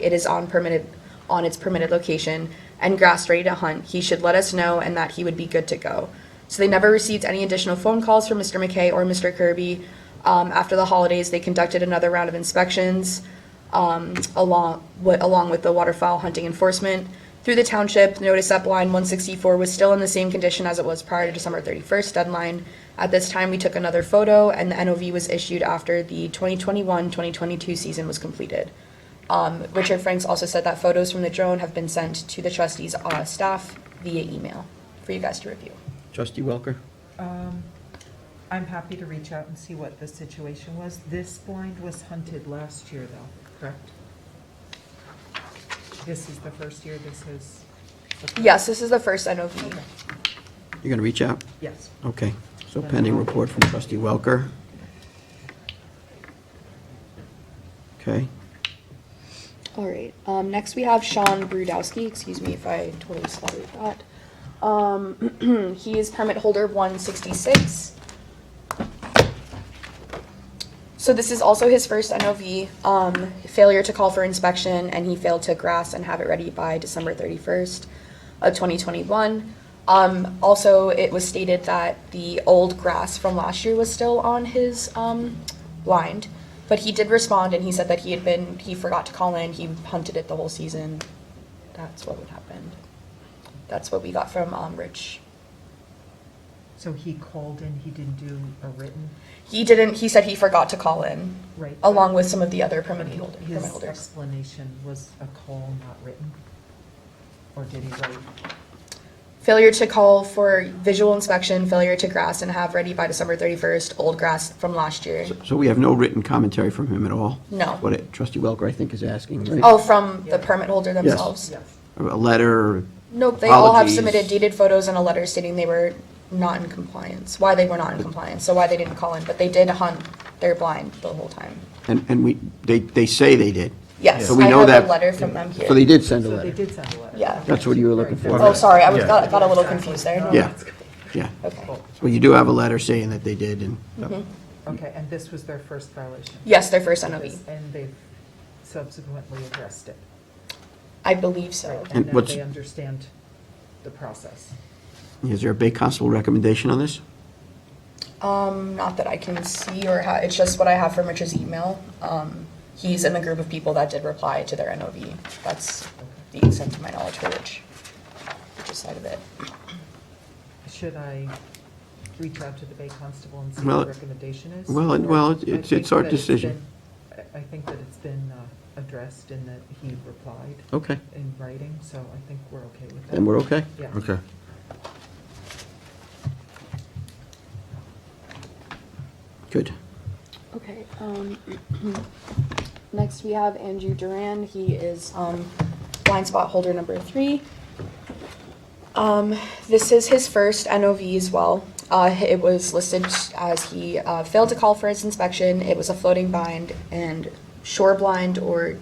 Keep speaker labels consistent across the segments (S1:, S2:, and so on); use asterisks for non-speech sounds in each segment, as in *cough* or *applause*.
S1: it is on permitted, on its permitted location, and grass ready to hunt, he should let us know and that he would be good to go. So they never received any additional phone calls from Mr. McKay or Mr. Kirby. Um, after the holidays, they conducted another round of inspections, um, along, what, along with the waterfowl hunting enforcement. Through the township, notice that line one sixty-four was still in the same condition as it was prior to December thirty-first deadline. At this time, we took another photo and the NOV was issued after the 2021-2022 season was completed. Um, Richard Franks also said that photos from the drone have been sent to the trustees' uh, staff via email for you guys to review.
S2: Trustee Welker?
S3: Um, I'm happy to reach out and see what the situation was. This blind was hunted last year, though, correct? This is the first year this is.
S1: Yes, this is the first NOV.
S3: Okay.
S2: You're going to reach out?
S3: Yes.
S2: Okay. So pending report from trustee Welker. Okay.
S1: All right, um, next we have Sean Brudowski, excuse me if I totally slaughtered that. Um, *clears throat* he is permit holder one sixty-six. So this is also his first NOV, um, failure to call for inspection, and he failed to grass and have it ready by December thirty-first of twenty twenty-one. Um, also, it was stated that the old grass from last year was still on his, um, blind. But he did respond and he said that he had been, he forgot to call in, he hunted it the whole season. That's what would happen. That's what we got from, um, Rich.
S3: So he called in, he didn't do a written,
S1: He didn't, he said he forgot to call in,
S3: right?
S1: along with some of the other permit holder- permit
S3: His
S1: holders.
S3: explanation was a call not written? Or did he write?
S1: Failure to call for visual inspection, failure to grass and have ready by December thirty-first, old grass from last year.
S2: So- So we have no written commentary from him at all?
S1: No.
S2: What it- trustee Welker, I think, is asking, right?
S1: Oh, from the
S3: Yeah.
S1: permit holder themselves?
S3: Yes.
S2: A letter,
S1: Nope, they all have
S2: Apologies.
S1: submitted dated photos and a letter stating they were not in compliance, why they were not in compliance, so why they didn't call in, but they did hunt their blind the whole time.
S2: and, and we, they, they say they did.
S1: Yes,
S2: So
S1: I
S2: we know
S1: have a
S2: that.
S1: letter from them
S2: So they
S1: here.
S2: did send a
S3: So they
S2: letter.
S3: did send a letter.
S1: Yeah.
S2: That's what you were looking for.
S1: Oh, sorry, I was,
S4: Yeah.
S1: got, got a little confused
S3: Oh,
S1: there.
S2: Yeah, yeah.
S1: Okay.
S2: So you do have a letter saying that they did, and
S3: Okay, and this was their first violation?
S1: Yes, their first E. NOV,
S3: And they've subsequently addressed it?
S1: I believe so.
S2: And
S3: And now
S2: what's-
S3: they understand the process.
S2: is there a Bay Constable recommendation on this?
S1: Um, not that I can see or ha, it's just what I have from Rich's email. Um, he's in the group of people that did reply to their NOV. That's the extent of my knowledge for Rich, Rich's side of it.
S3: Should I reach out to the Bay Constable and see
S2: Well,
S3: what the recommendation is?
S2: well, it- well, it's-
S3: Or I
S2: it's-
S3: think
S2: it's our
S3: that
S2: decision.
S3: been- I I think that it's been uh, addressed and that he replied
S2: Okay.
S3: in writing, so I think we're okay with that.
S2: Then we're okay?
S3: Yeah.
S4: Okay.
S2: Good.
S1: Okay, um, *clears throat* next we have Andrew Duran, he is, um, blind spot holder number three. Um, this is his first NOV as well, uh, it was listed as he, uh, failed to call for his inspection, it was a floating bind and shore blind or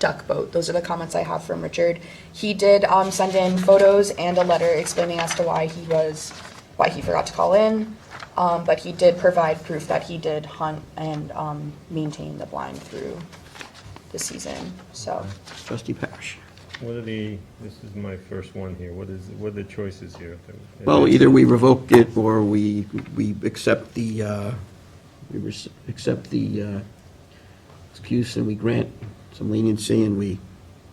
S1: duck boat, those are the comments I have from Richard. He did, um, send in photos and a letter explaining as to why he was, why he forgot to call in. Um, but he did provide proof that he did hunt and, um, maintain the blind through the season, so.
S2: Trustee Parrish.
S5: What are the, this is my first one here, what is, what are the choices here?
S2: Well, either we revoke it or we, we accept the, uh, we res- accept the uh, excuse and we grant some leniency and we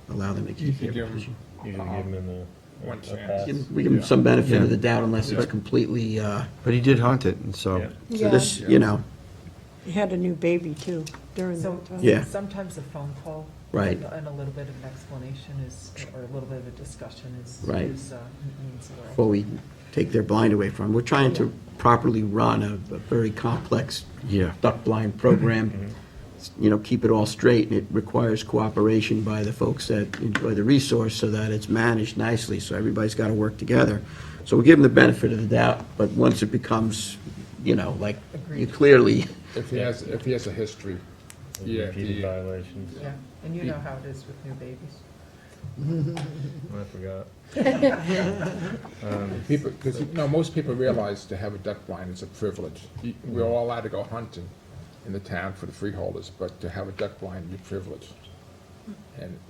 S2: allow them to keep their
S4: could give 'em-
S2: position.
S5: Usually give them a, a
S4: One
S5: pass.
S4: chance.
S2: Give- We give them some benefit of the
S4: Yeah.
S2: doubt unless it's
S4: Yeah.
S2: completely, uh,
S4: But he did hunt it, and so.
S5: Yeah.
S2: so this, you know,
S6: He had a new baby too during
S3: So
S6: that time.
S2: Yeah.
S3: sometimes a phone call.
S2: Right.
S3: And a little bit of an explanation is, or a little bit of a discussion is.
S2: Right.
S3: is, uh, means a lot.
S2: before we take their blind away from them. We're trying to properly run a a very complex
S4: Yeah.
S2: duck blind program, you know, keep it all straight, and it requires cooperation by the folks that enjoy the resource so that it's managed nicely, so everybody's got to work together. So we give them the benefit of the doubt, but once it becomes, you know, like, you
S3: Agreed.
S2: clearly,
S7: If he has, if he has a history, yeah, if
S5: Repeated
S7: he-
S5: violations,
S3: Yeah, and you know how it is with new babies.
S5: I forgot.
S7: people, because, no, most people realize to have a duck blind is a privilege. You- We're all allowed to go hunting in the town for the freeholders, but to have a duck blind, you're privileged. And